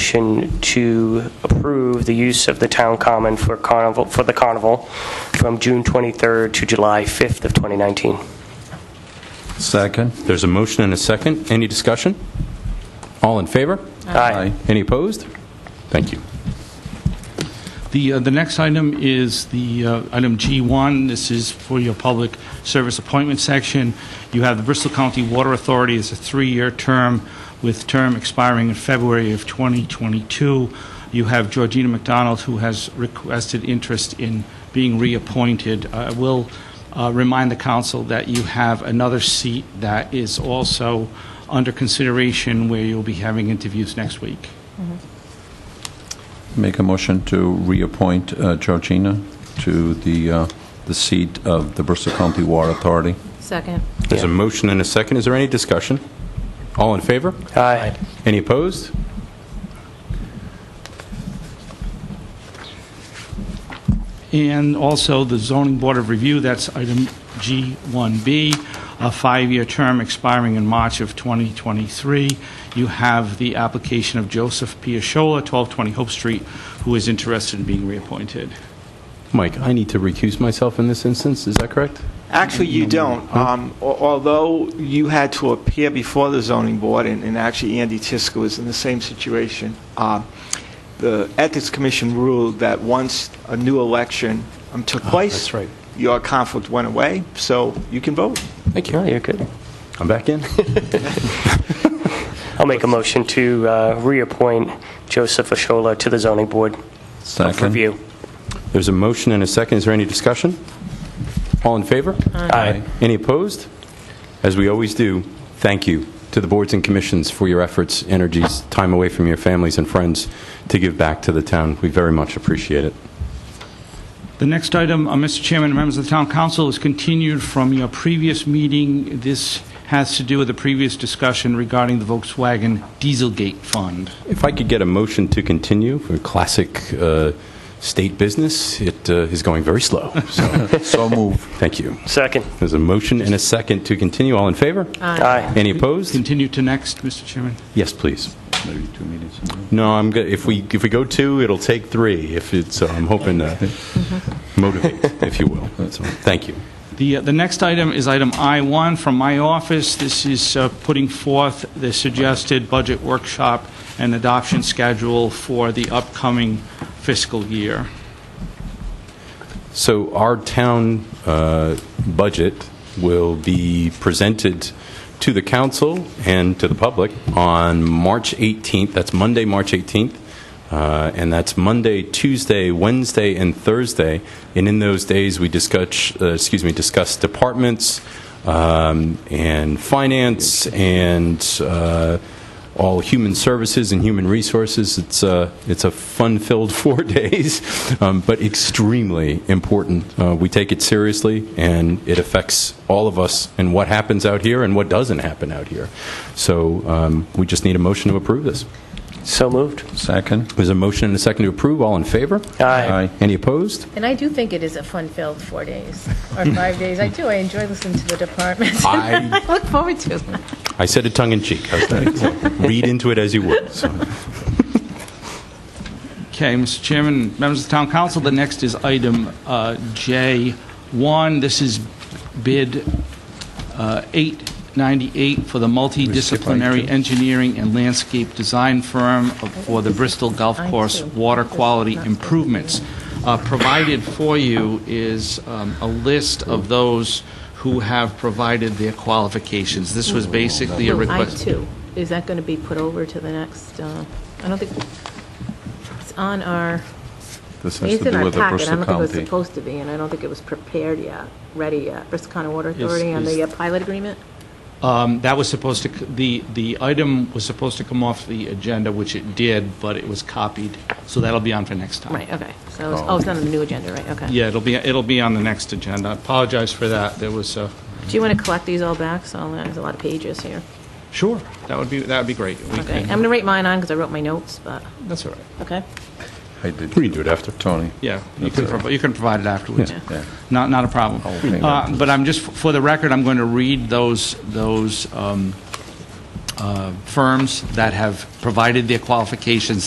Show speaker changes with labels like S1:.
S1: motion to approve the use of the town common for carnival, for the carnival from June 23rd to July 5th of 2019.
S2: Second.
S3: There's a motion and a second. Any discussion? All in favor?
S1: Aye.
S3: Any opposed? Thank you.
S4: The, uh, the next item is the, uh, item G1. This is for your public service appointment section. You have the Bristol County Water Authority as a three-year term with term expiring in February of 2022. You have Georgina McDonald, who has requested interest in being reappointed. I will uh, remind the council that you have another seat that is also under consideration where you'll be having interviews next week.
S2: Make a motion to reappoint uh, Georgina to the, uh, the seat of the Bristol County Water Authority.
S5: Second.
S3: There's a motion and a second. Is there any discussion? All in favor?
S1: Aye.
S3: Any opposed?
S4: And also the Zoning Board of Review, that's item G1B, a five-year term expiring in March of 2023. You have the application of Joseph Piasciola, 1220 Hope Street, who is interested in being reappointed.
S3: Mike, I need to recuse myself in this instance. Is that correct?
S6: Actually, you don't. Um, al- Although you had to appear before the zoning board, and and actually Andy Tiska was in the same situation, uh, the Ethics Commission ruled that once a new election um, took place...
S3: Ah, that's right.
S6: Your conflict went away, so you can vote.
S3: Thank
S1: No,
S3: you.
S1: Oh, you're good.
S3: I'm back in.
S1: I'll make a motion to uh, reappoint Joseph Ashola to the zoning board
S2: Second.
S1: for review.
S3: There's a motion and a second. Is there any discussion? All in favor?
S1: Aye.
S3: Any opposed? As we always do, thank you to the boards and commissions for your efforts, energies, time away from your families and friends to give back to the town. We very much appreciate it.
S4: The next item, uh, Mr. Chairman, members of the Town Council, is continued from your previous meeting. This has to do with the previous discussion regarding the Volkswagen Dieselgate Fund.
S3: If I could get a motion to continue for classic uh, state business, it uh, is going very slow. So,
S2: So move.
S3: thank you.
S1: Second.
S3: There's a motion and a second to continue. All in favor?
S1: Uh, Aye.
S3: Any opposed?
S4: Continue to next, Mr. Chairman.
S3: Yes, please.
S2: Maybe two meetings.
S3: No, I'm good. If we if we go two, it'll take three. If it's, so I'm hoping to motivate, if you will. So, thank you.
S4: The, uh, the next item is item I-1 from my office. This is uh, putting forth the suggested budget workshop and adoption schedule for the upcoming fiscal year.
S3: So our town uh, budget will be presented to the council and to the public on March 18th. That's Monday, March 18th. Uh, And that's Monday, Tuesday, Wednesday, and Thursday. And in those days, we discuss, uh, excuse me, discuss departments um, and finance and uh, all human services and human resources. It's a, it's a fun-filled four days, um, but extremely important. Uh, we take it seriously, and it affects all of us and what happens out here and what doesn't happen out here. So um, we just need a motion to approve this.
S1: So moved.
S2: Second.
S3: There's a motion and a second to approve. All in favor?
S1: Aye.
S3: Any opposed?
S5: And I do think it is a fun-filled four days, or five days. I do, I enjoy listening to the departments.
S3: I-
S5: I look forward to it.
S3: I said it tongue in cheek. I was trying to read into it as you would. So.
S4: Okay, Mr. Chairman, members of the Town Council, the next is item uh, J1. This is bid uh, 898 for the multidisciplinary engineering and landscape design firm of- for the Bristol Golf
S5: I
S4: Course
S5: too.
S4: water quality
S5: Not so
S4: improvements. Uh, Provided for you is um, a list of those who have provided their qualifications. This was basically a request.
S5: I-2, is that going to be put over to the next, uh, I don't think, it's on our,
S2: This has
S5: it's
S2: to
S5: in
S2: do
S5: our
S2: with the
S5: packet. I
S2: Bristol
S5: don't think it was
S2: County.
S5: supposed to be, and I don't think it was prepared yet, ready yet. Bristol County Water
S4: Yes,
S5: Authority on the
S4: yes.
S5: uh, pilot agreement?
S4: Um, That was supposed to, c- the, the item was supposed to come off the agenda, which it did, but it was copied, so that'll be on for next time.
S5: Right, okay. So, it's- oh, it's not on the new agenda, right, okay.
S4: Yeah, it'll be, it'll be on the next agenda. I apologize for that, there was a...
S5: Do you want to collect these all back? So there's a lot of pages here.
S4: Sure. That would be, that would be great. We
S5: Okay, I'm
S4: can-
S5: going to write mine on because I wrote my notes, but,
S4: That's all right,
S5: okay.
S2: I did.
S3: We can do it after.
S2: Tony.
S4: yeah. You can, provi- you can provide it afterwards.
S2: Yeah.
S4: Not, not a problem.
S2: Okay.
S4: Uh, But I'm just, for the record, I'm going to read those, those um, uh, firms that have provided their qualifications